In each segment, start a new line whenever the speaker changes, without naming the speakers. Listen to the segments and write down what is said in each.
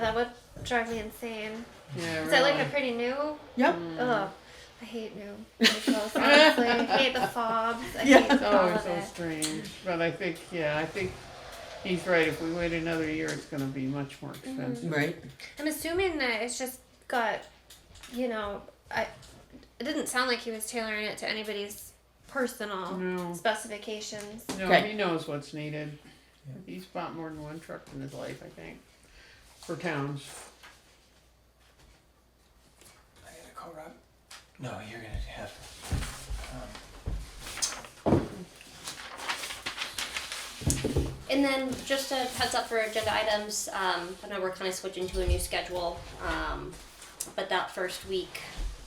That would drive me insane.
Yeah,
Is it like a
really.
pretty new?
Yep.
Mm.
Ugh. I hate new vehicles, honestly. I hate the fobs. I hate
Yeah.
all
Oh,
of
it's so
it.
strange. But I think, yeah, I think he's right. If we wait another year, it's going to be much more expensive.
Right.
I'm assuming that it's just got, you know, I, it didn't sound like he was tailoring it to anybody's personal
No.
specifications.
No,
Okay.
he knows what's needed. He's bought more than one truck in his life, I think, for towns.
I gotta call Rob. No, you're gonna have. Um,
And then just a heads up for agenda items. Um, I know we're kind of switching to a new schedule, um, but that first week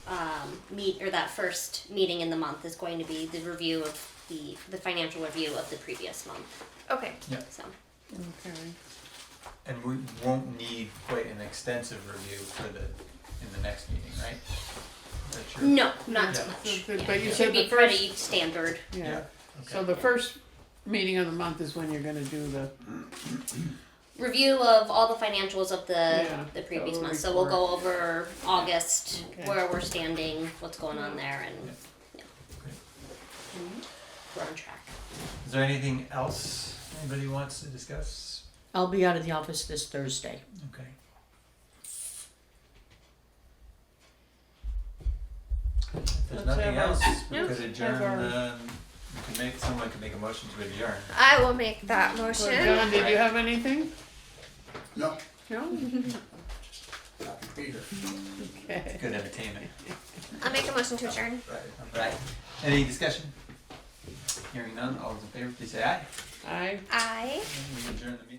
um, meet or that first meeting in the month is going to be the review of the the financial review of the previous month.
Okay.
So
Okay.
and we won't need quite an extensive review for the in the next meeting, right? That's your-
no, not so
Yeah.
much.
But-
Yeah.
but you
it
said
should be
the first-
pretty standard.
Yeah.
Yeah. Okay.
So the first meeting of the month is when you're going to do the.
review of all the financials of the
Yeah,
the previous
total
month. So we'll
report.
go over August,
Okay.
where we're standing, what's going on there, and
Yeah.
yeah,
Great.
we're on track.
Is there anything else anybody wants to discuss?
I'll be out of the office this Thursday.
Okay. If there's
Let's
nothing
have our-
else, we
No,
could adjourn.
our-
Um, we could make someone could make a motion to adjourn.
I will make that
Well,
motion.
John, did you have anything?
No,
No?
happy to be here.
Okay.
Good entertainment.
I'll make a motion to adjourn.
Right. Right. Any discussion? Hearing none, all those in favor, please say aye.
I.
I.
We adjourn the meeting.